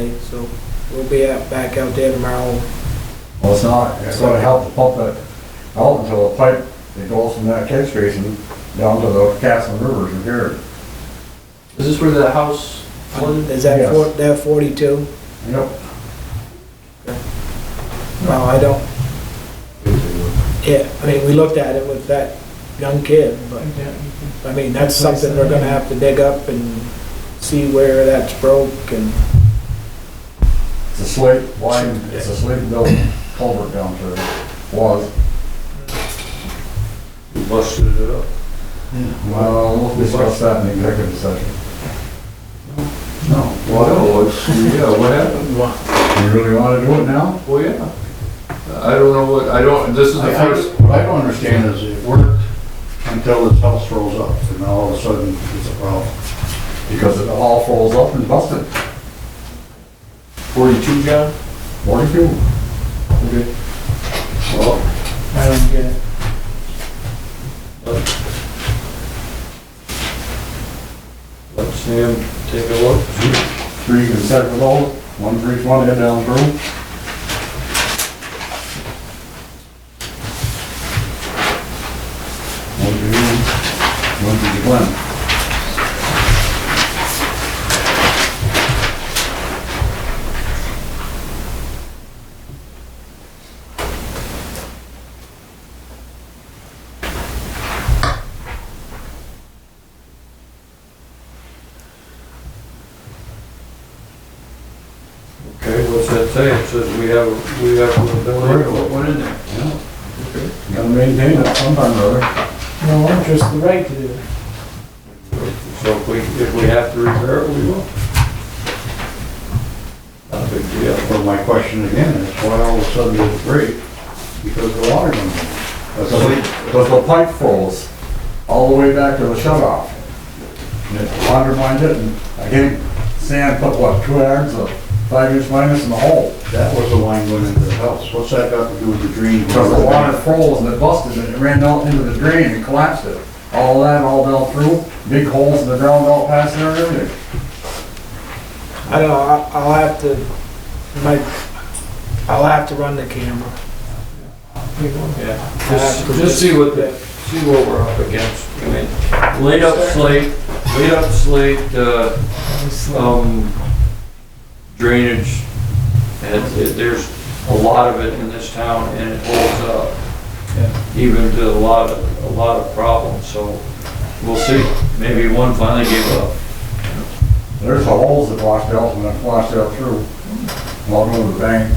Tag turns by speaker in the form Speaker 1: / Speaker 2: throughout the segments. Speaker 1: So we'll be out, back out there tomorrow.
Speaker 2: Well, it's not, it's gonna help the pump it out until the pipe, it goes from that catch basin down to the Castle Rivers in here.
Speaker 3: Is this where the house flooded?
Speaker 1: Is that
Speaker 2: Yes.
Speaker 1: four, that forty-two?
Speaker 2: Yep.
Speaker 1: No, I don't, yeah, I mean, we looked at it with that young kid, but, I mean, that's something we're gonna have to dig up and see where that's broke and,
Speaker 2: It's a slate line, it's a slate built culvert down there, was.
Speaker 4: You busted it up.
Speaker 2: Well, Uh, we'll discuss that in the executive session. No. Well,
Speaker 4: Well, it's, yeah, what happened?
Speaker 2: you really wanna do it now?
Speaker 3: Oh,
Speaker 4: Well, yeah. I don't know what, I don't, this is the
Speaker 5: I- I-
Speaker 4: first,
Speaker 5: What I don't understand is it worked until this house rolls up, and now all of a sudden it's a problem.
Speaker 2: Because it all falls up and busted,
Speaker 4: forty-two, John?
Speaker 2: forty-two.
Speaker 5: Well,
Speaker 1: I don't get it.
Speaker 4: Let Sam take a look.
Speaker 2: Three can set with all, one for each one head down through. One for you, one for the Glen.
Speaker 4: Okay, what's that say? It says we have, we have an ability to put one in there.
Speaker 2: You Gotta maintain it sometime or other.
Speaker 1: No, just the right to do it.
Speaker 4: So if we, if we have to repair it, we will. Not a big deal.
Speaker 5: but my question again is why all of a sudden it's break? Because the water comes in. That's all.
Speaker 2: Because the pipe falls all the way back to the shut off. And it undermined it and again, sand put what, two irons of five inch minus in the hole.
Speaker 5: That was the line going into the house. What's that got to do with the drain?
Speaker 2: Because the water froze and it busted and it ran down into the drain and collapsed it. All that all down through, big holes in the ground all past there and everything.
Speaker 1: I don't know, I- I'll have to, my, I'll have to run the camera.
Speaker 4: Yeah. Just, just see what the, see what we're up against. I mean, laid up slate, laid up slate, uh, um, drainage. And it- there's a lot of it in this town and it holds up. Even to a lot of, a lot of problems, so we'll see. Maybe one finally gave up.
Speaker 2: There's the holes that washed out when it washed out through. Along over the bank.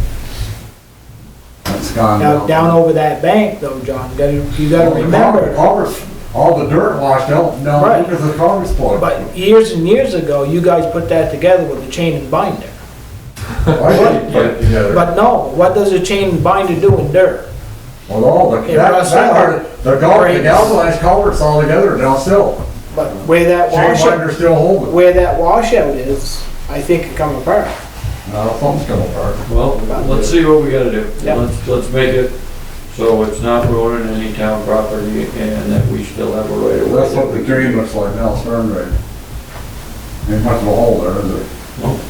Speaker 2: That's gone.
Speaker 1: Now, down over that bank though, John, you gotta, you
Speaker 4: Oh,
Speaker 1: gotta remember,
Speaker 2: All the, all the dirt washed out down
Speaker 1: Right.
Speaker 2: because the car was spoiled.
Speaker 1: but years and years ago, you guys put that together with a chain and binder.
Speaker 2: I didn't put it together.
Speaker 1: But no, what does a chain and binder do in dirt?
Speaker 2: Well, all the,
Speaker 1: It
Speaker 2: that,
Speaker 1: rusts
Speaker 2: that
Speaker 1: out.
Speaker 2: part, the gal- the
Speaker 1: Drains.
Speaker 2: galvanized culvert's all together now still.
Speaker 1: But where that
Speaker 2: Chain
Speaker 1: washout,
Speaker 2: binder's still holding.
Speaker 1: where that washout is, I think it come apart.
Speaker 2: No, something's coming apart.
Speaker 4: Well, let's see what we gotta do.
Speaker 1: Yeah.
Speaker 4: Let's, let's make it so it's not ruining any town property and that we still have a right of way.
Speaker 2: That's what the drain looks like now, it's turned right. Ain't much of a hole there, is it?
Speaker 4: No.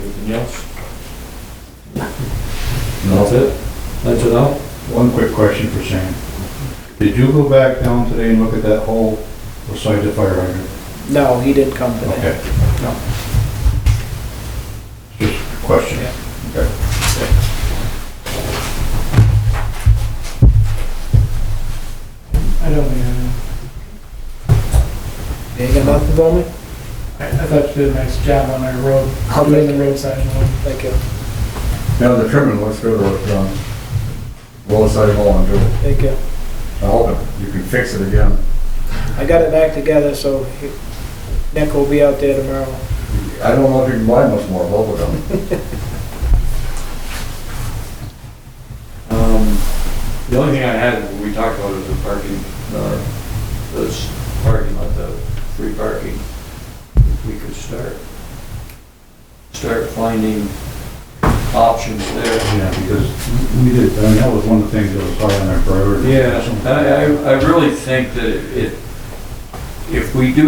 Speaker 4: Anything else? That's it? That's enough?
Speaker 5: One quick question for Sam. Did you go back down today and look at that hole beside the fire hydrant?
Speaker 1: No, he didn't come today.
Speaker 5: Okay. No. Just a question. Okay.
Speaker 6: I don't know.
Speaker 1: You ain't got nothing for me?
Speaker 6: uh, I, I thought you did a nice job on our road,
Speaker 1: I'll
Speaker 6: doing
Speaker 1: take
Speaker 6: the roadside one.
Speaker 1: Like, uh,
Speaker 2: Now the trimming looks good, where it's done. um, Well, it's not all undo.
Speaker 1: like, uh,
Speaker 2: I hope it- you can fix it again.
Speaker 1: I got it back together, so he- Nick will be out there tomorrow.
Speaker 2: I don't know if you can buy much more bubble gum.
Speaker 4: Um, the only thing I had, we talked about is the parking, uh, this parking lot, the free parking. If We could start, start finding options there.
Speaker 5: Yeah, because we did, I mean, that was one of the things that was high on our priority.
Speaker 4: Yeah, I, I, I really think that if, if we do